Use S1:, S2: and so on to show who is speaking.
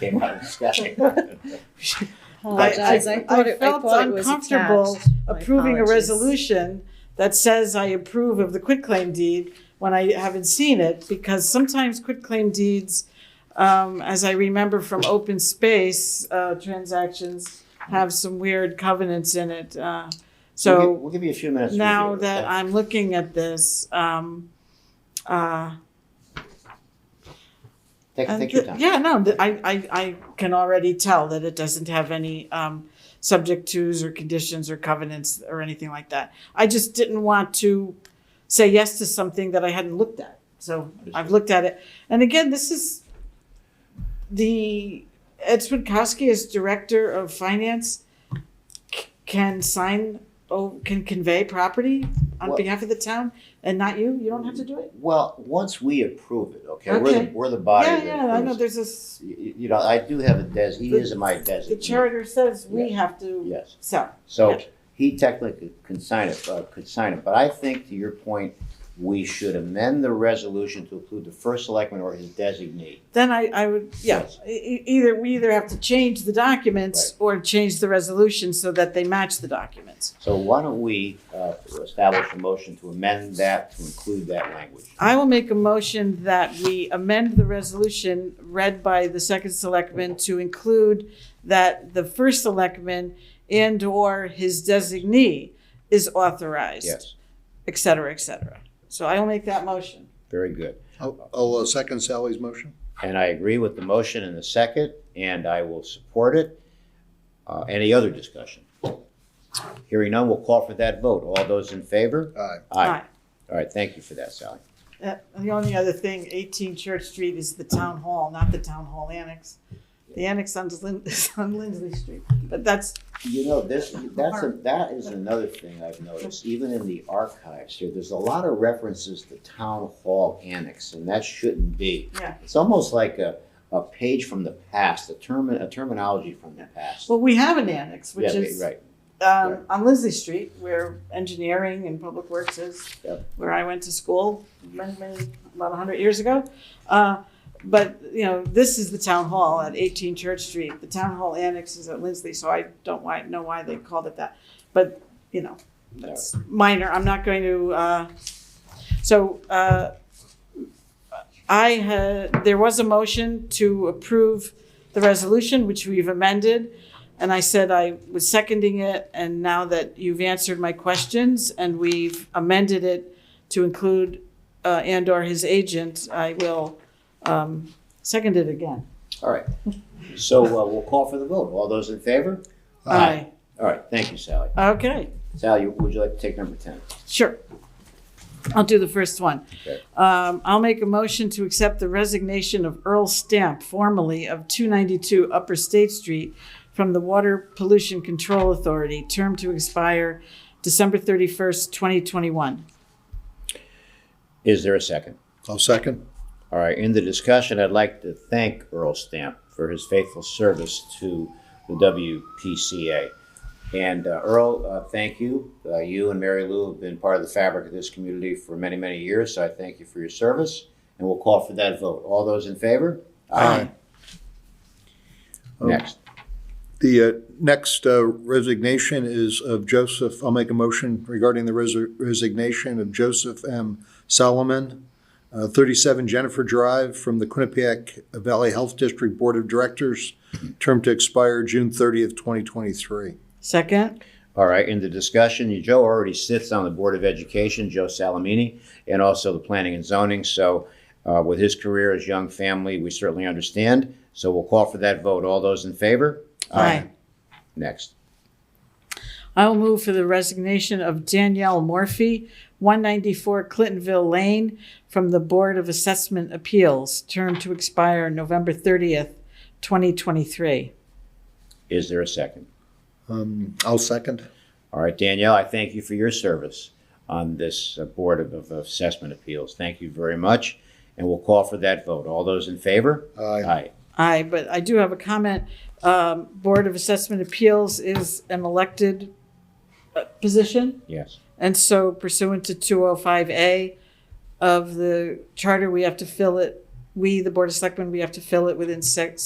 S1: came out of discussion.
S2: Apologize. Oh, I thought it- I
S3: felt
S2: thought it was
S3: uncomfortable
S2: attached. My
S3: approving a
S2: apologies.
S3: resolution that says I approve of the quitclaim deed when I haven't seen it, because sometimes quitclaim deeds, um, as I remember from open space, uh, transactions have some weird covenants in it, uh,
S1: We'll gi-
S3: so
S1: We'll give you a few minutes. to
S3: now
S1: review it,
S3: that
S1: okay?
S3: I'm looking at this, um, uh,
S1: Take,
S3: and
S1: take your
S3: th-
S1: time.
S3: Uh, Yeah, no, th- I, I, I can already tell that it doesn't have any, um, subject tos or conditions or covenants or anything like that. I just didn't want to say yes to something that I hadn't looked at. So I've looked at it. And again, this is the, Ed Swinkowski as Director of Finance c- can sign, oh, can convey property on
S1: Well-
S3: behalf of the town and not you? You don't have to do it?
S1: Well, once we approve it, okay, we're the,
S3: Okay.
S1: we're the body
S3: Yeah,
S1: that.
S3: yeah, I
S1: approves
S3: know,
S1: it.
S3: there's this,
S1: Y- y- You know, I do have a des, he
S3: The-
S1: is my
S3: the
S1: designee.
S3: charter says we have to.
S1: Yes,
S3: So,
S1: so
S3: Yeah.
S1: he technically could sign it, uh, could sign it, but I think to your point, we should amend the resolution to include the first selectman or his designee.
S3: then I, I would, yeah,
S1: Yes.
S3: e- e- either, we either have to change the documents or change the resolution so that they match the documents.
S1: So why don't we, uh, establish a motion to amend that to include that language?
S3: I will make a motion that we amend the resolution read by the second selectman to include that the first selectman and/or his designee is authorized,
S1: Yes,
S3: et cetera, et cetera. So I will make that motion.
S1: very good.
S4: I'll, I'll uh, second Sally's motion.
S1: And I agree with the motion and the second, and I will support it. Uh, Any other discussion? Hearing none, we'll call for that vote. All those in favor?
S4: Aye.
S1: Aye. All right, thank you for that, Sally.
S3: Uh, The only other thing, 18 Church Street is the town hall, not the town hall annex. The annex on Lin- is on Lindley Street, but that's,
S1: You know, this, that's, a- that is another thing I've noticed, even in the archives here, there's a lot of references to town hall annex, and that shouldn't be.
S3: Yeah.
S1: It's almost like a, a page from the past, a term, a terminology from the past.
S3: well, we have an annex, which
S1: Yeah,
S3: is
S1: Right,
S3: um, on Lindley Street, where engineering and public works is,
S1: Yep. Mm-hmm.
S3: where I went to school many, many, about 100 years ago. Uh, But, you know, this is the town hall at 18 Church Street. The town hall annex is at Lindley, so I don't why- know why they called it that. But, you know, that's minor. I'm not going to, uh, so uh, I had, there was a motion to approve the resolution, which we've amended. And I said I was seconding it, and now that you've answered my questions and we've amended it to include uh, and/or his agent, I will um, second it again.
S1: all right. So uh, we'll call for the vote. All those in favor? Aye. All right, thank you, Sally.
S3: Aye. Okay,
S1: Sally, would you like to take number ten?
S3: sure. I'll do the first one.
S1: Okay.
S3: Um, I'll make a motion to accept the resignation of Earl Stamp, formerly of 292 Upper State Street, from the Water Pollution Control Authority, term to expire December 31st, 2021.
S1: Is there a second?
S4: I'll second.
S1: All right, in the discussion, I'd like to thank Earl Stamp for his faithful service to the WPCA. And uh, Earl, uh, thank you. Uh, you and Mary Lou have been part of the fabric of this community for many, many years, so I thank you for your service. And we'll call for that vote. All those in favor?
S4: Aye.
S1: Next.
S4: The uh, next uh, resignation is of Joseph, I'll make a motion regarding the resi- resignation of Joseph M. Solomon, uh, 37 Jennifer Drive, from the Quinnipiac Valley Health District Board of Directors, term to expire June 30th, 2023.
S3: Second?
S1: All right, in the discussion, you- Joe already sits on the Board of Education, Joe Salamini, and also the Planning and Zoning. So uh, with his career, his young family, we certainly understand. So we'll call for that vote. All those in favor? Next.
S3: I will move for the resignation of Danielle Morphy, 194 Clintonville Lane, from the Board of Assessment Appeals, term to expire November 30th, 2023.
S1: Is there a second?
S4: Um, I'll second.
S1: All right, Danielle, I thank you for your service on this uh, Board of- of Assessment Appeals. Thank you very much. And we'll call for that vote. All those in favor?
S4: Aye.
S1: Aye.
S3: Aye, but I do have a comment. Um, Board of Assessment Appeals is an elected uh, position,
S1: Yes.
S3: and so pursuant to 205A of the charter, we have to fill it, we, the Board of Selectmen, we have to fill it within six,